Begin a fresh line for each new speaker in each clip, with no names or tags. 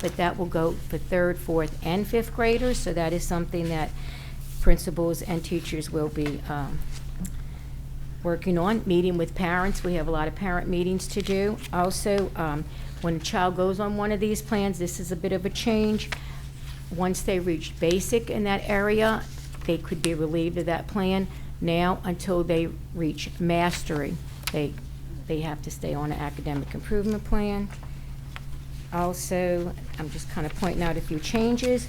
but that will go for third, fourth, and fifth graders, so that is something that principals and teachers will be um, working on, meeting with parents. We have a lot of parent meetings to do. Also, um, when a child goes on one of these plans, this is a bit of a change. Once they reach basic in that area, they could be relieved of that plan. Now, until they reach mastery, they, they have to stay on an academic improvement plan. Also, I'm just kind of pointing out a few changes.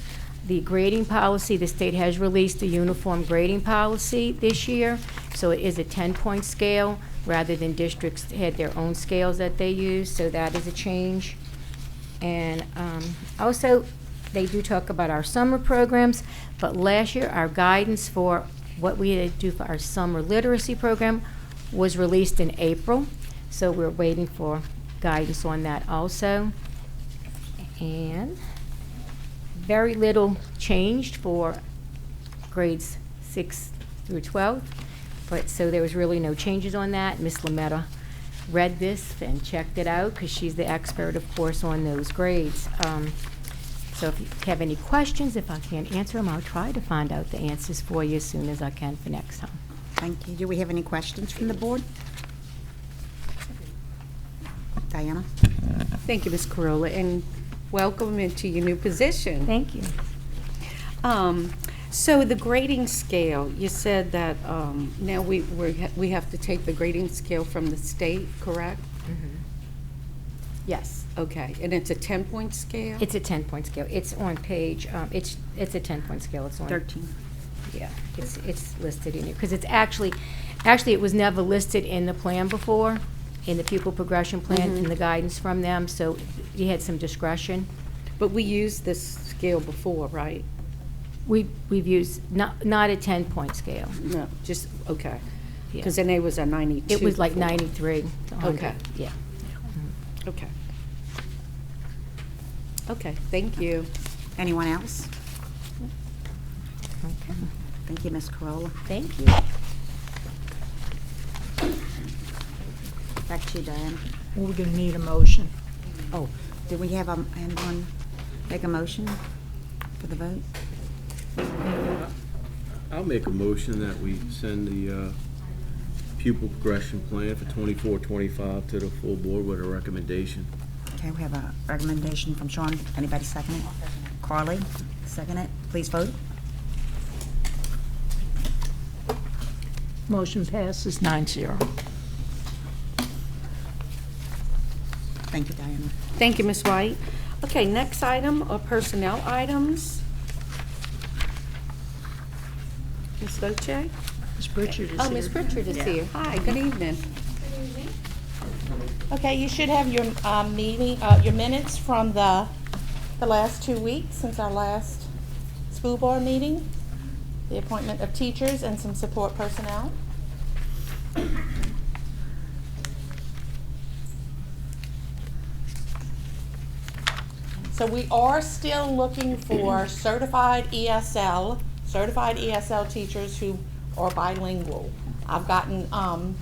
The grading policy, the state has released a uniform grading policy this year, so it is a 10-point scale rather than districts had their own scales that they use, so that is a change. And um, also, they do talk about our summer programs, but last year, our guidance for what we had to do for our summer literacy program was released in April, so we're waiting for guidance on that also. And very little changed for grades six through 12, but, so there was really no changes on that. Miss Lametta read this and checked it out, because she's the expert, of course, on those grades. Um, So if you have any questions, if I can't answer them, I'll try to find out the answers for you as soon as I can for next time.
Thank you. Do we have any questions from the board? Diana?
Thank you, Ms. Corolla, and welcome into your new position.
Thank you.
Um, So the grading scale, you said that um, now we, we're ha- we have to take the grading scale from the state, correct?
Mm-hmm.
Yes. Okay, and it's a 10-point scale?
It's a 10-point scale. It's on page, um, it's, it's a 10-point scale. It's on. Yeah, it's, it's listed in here, because it's actually, actually, it was never listed in the plan before, in the pupil progression plan,
Mm-hmm.
in the guidance from them, so you had some discretion.
But we used this scale before, right?
We, we've used, not, not a ten-point scale.
No, just,
Yeah.
okay. Because then it was a 92.
It was like
for-
ninety-three, a hundred,
Okay.
yeah.
Okay. Okay, thank you.
Anyone else?
Okay.
Thank you, Ms. Corolla.
Thank you.
Back to you, Diana.
We're going to need a motion.
Oh, do we have, um, anyone make a motion for the vote?
I'll make a motion that we send the uh, pupil progression plan for 24-25 to the full board with a recommendation.
Okay, we have a recommendation from Sean. Anybody second it? Carly, second it. Please vote.
Motion passes nine zero.
Thank you, Diana.
Thank you, Ms. White. Okay, next item are personnel items. Ms. Loche?
Ms. Pritchard is here.
Oh, Ms. Pritchard is here. Hi, good evening.
Okay, you should have your um, meeting, uh, your minutes from the, the last two weeks since our last school board meeting, the appointment of teachers and some support personnel. So we are still looking for certified ESL, certified ESL teachers who are bilingual. I've gotten, um,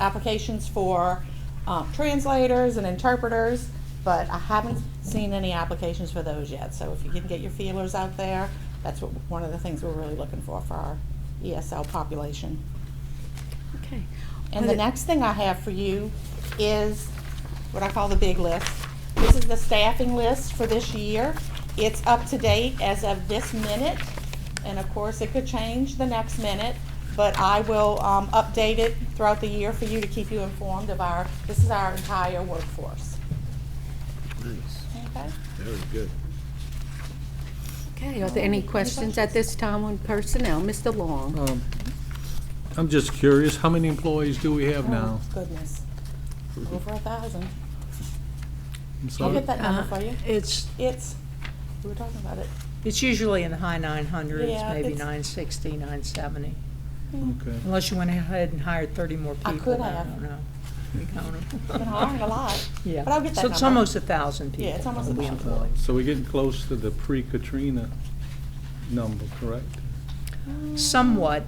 applications for, um, translators and interpreters, but I haven't seen any applications for those yet. So if you can get your feelers out there, that's what, one of the things we're really looking for, for our ESL population.
Okay.
And the next thing I have for you is what I call the big list. This is the staffing list for this year. It's up to date as of this minute, and of course, it could change the next minute, but I will um, update it throughout the year for you to keep you informed of our, this is our entire workforce.
Nice.
Okay?
Very good.
Okay, are there any questions at this time on personnel? Mr. Long?
Um, I'm just curious, how many employees do we have now?
Oh, Goodness. Over a thousand.
I'm
I'll
sorry.
get that number for you.
Uh, It's,
It's, we were talking about it.
it's usually in the high nine hundreds,
Yeah,
maybe
it's-
nine sixty, nine seventy.
Okay.
Unless you went ahead and hired thirty more
I
people.
could have.
I don't know. We count 'em.
Been hiring a lot.
Yeah.
But I'll get that
So it's
number.
almost a thousand people.
Yeah, it's almost a
that we
thousand.
employ.
So we're getting close to the pre-Katrina number, correct?
somewhat.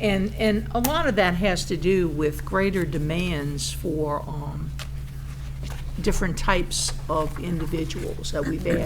And, and a lot of that has to do with greater demands for um, different types of individuals that we've added.